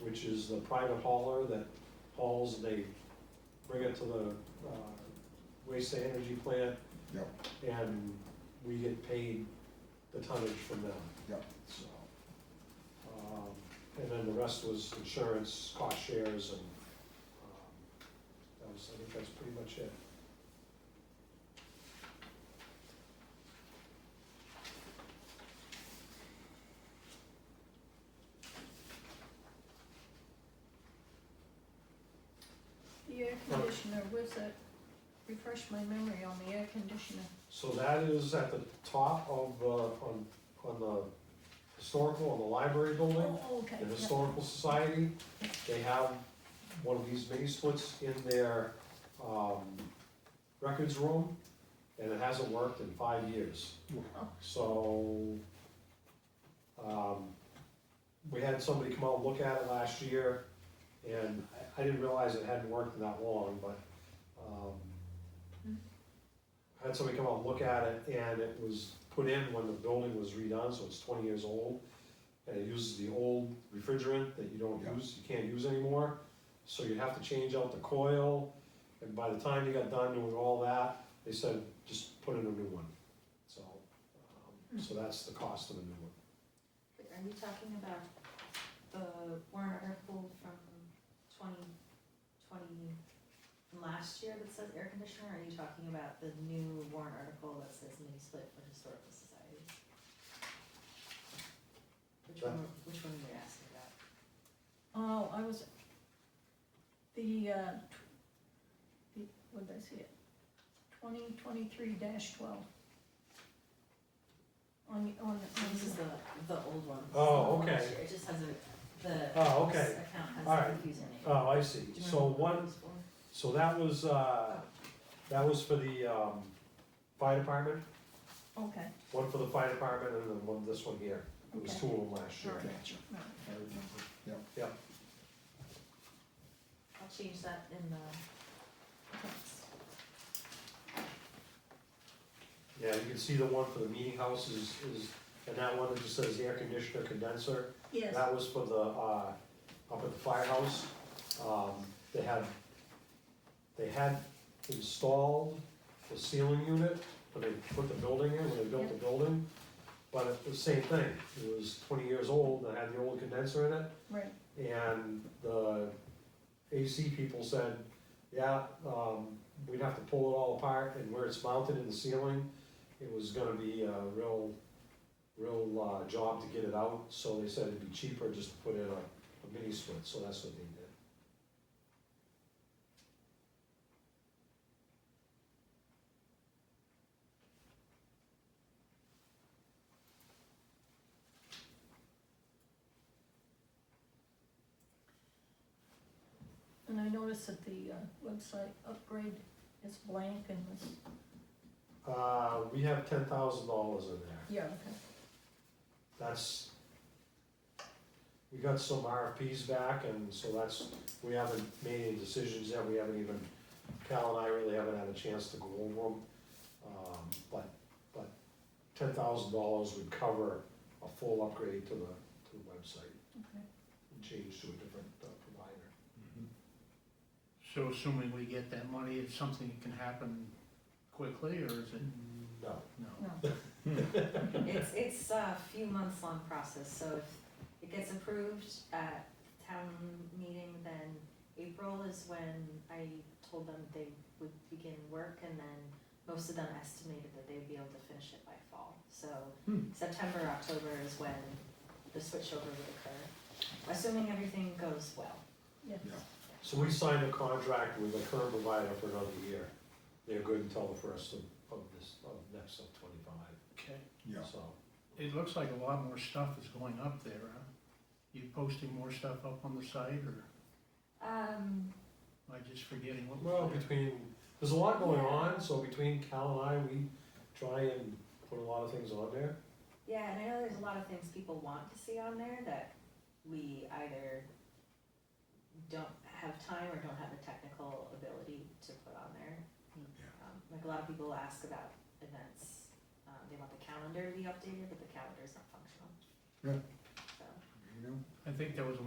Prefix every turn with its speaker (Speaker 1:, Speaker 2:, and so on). Speaker 1: which is the private hauler that hauls, they bring it to the uh, waste to energy plant,
Speaker 2: Yep,
Speaker 1: and we get paid the tonnage from them,
Speaker 2: yep,
Speaker 1: so. um, And then the rest was insurance, cost shares, and um, that was, I think that's pretty much it.
Speaker 3: The air conditioner, where's that, refresh my memory on the air conditioner.
Speaker 1: So that is at the top of, uh, on, on the historical, on the library building,
Speaker 3: Oh, okay,
Speaker 1: the
Speaker 3: yeah,
Speaker 1: Historical Society. They have one of these mini splits in their, um, records room, and it hasn't worked in five years.
Speaker 3: Oh.
Speaker 1: So, um, we had somebody come out and look at it last year, and I, I didn't realize it hadn't worked in that long, but, um, I had somebody come out and look at it, and it was put in when the building was redone, so it's twenty years old. And it uses the old refrigerant that you don't
Speaker 2: Yeah.
Speaker 1: use, you can't use anymore, so you'd have to change out the coil. And by the time you got done doing all that, they said, just put in a new one, so, um, so that's the cost of a new one.
Speaker 4: Wait, Are we talking about the warrant article from twenty twenty, from last year that says air conditioner? or Are you talking about the new warrant article that says mini split for historical societies? Which one, were- which one were you asking about?
Speaker 3: oh, I was, the, uh, tw- the, what did I see it? Twenty twenty-three twelve. On, on, on,
Speaker 4: Oh, This is the, the old one. It's
Speaker 1: Oh,
Speaker 4: not the one
Speaker 1: okay.
Speaker 4: this year. It just has a, the.
Speaker 1: Oh,
Speaker 4: this
Speaker 1: okay,
Speaker 4: Account has
Speaker 1: All
Speaker 4: a
Speaker 1: right.
Speaker 4: username.
Speaker 1: oh, I see,
Speaker 4: Do you
Speaker 1: so
Speaker 4: remember what
Speaker 1: one,
Speaker 4: it was for?
Speaker 1: So that was, uh, that was for the, um, fire department,
Speaker 3: okay,
Speaker 1: one for the fire department and then one, this one here. It was
Speaker 3: Okay.
Speaker 1: two of them last year.
Speaker 3: Sure.
Speaker 2: gotcha, I
Speaker 3: no,
Speaker 2: remember, yep.
Speaker 4: I'll change that in the text.
Speaker 1: Yeah, you can see the one for the meeting house is, is, and that one that just says air conditioner condenser.
Speaker 3: yes,
Speaker 1: That was for the, uh, up at the firehouse, um, they had, they had installed the ceiling unit, when they put the building in, when they built the building. But it was the same thing, it was twenty years old, and it had the old condenser in it,
Speaker 3: right,
Speaker 1: And the AC people said, yeah, um, we'd have to pull it all apart and where it's mounted in the ceiling, it was gonna be a real, real, uh, job to get it out, so they said it'd be cheaper just to put in a, a mini split, so that's what they did.
Speaker 3: and I noticed that the, uh, website upgrade is blank and this,
Speaker 1: Uh, we have ten thousand dollars in there,
Speaker 3: yeah, okay,
Speaker 1: that's, we got some RFPs back, and so that's, we haven't made any decisions yet, we haven't even, Cal and I really haven't had a chance to go over them. Um, but, but ten thousand dollars would cover a full upgrade to the, to the website.
Speaker 3: Okay.
Speaker 1: And Change to a different uh, provider.
Speaker 5: So assuming we get that money, it's something that can happen quickly, or is it,
Speaker 1: No,
Speaker 5: no?
Speaker 3: no,
Speaker 4: It's, it's a few months long process, so if it gets approved at town meeting, then April is when I told them they would begin work, and then most of them estimated that they'd be able to finish it by fall. So
Speaker 5: Hmm.
Speaker 4: September, October is when the switchover would occur, assuming everything goes well.
Speaker 3: yes,
Speaker 2: Yeah.
Speaker 1: so we signed a contract with the current provider for another year, they're good until the first of, of this, of next of twenty-five,
Speaker 5: Okay,
Speaker 2: Yeah,
Speaker 1: so.
Speaker 5: it looks like a lot more stuff is going up there, huh? You posting more stuff up on the site, or
Speaker 4: Um,
Speaker 5: am I just forgetting what
Speaker 1: Well,
Speaker 5: was there?
Speaker 1: between, there's a lot going on, so between Cal and I, we try and put a lot of things on there.
Speaker 4: Yeah, and I know there's a lot of things people want to see on there that we either don't have time or don't have the technical ability to put on there.
Speaker 2: Yeah.
Speaker 4: Um, Like a lot of people ask about events, um, they want the calendar to be updated, but the calendar's not functional.
Speaker 2: Yeah.
Speaker 4: So.
Speaker 2: you know?
Speaker 5: I think there was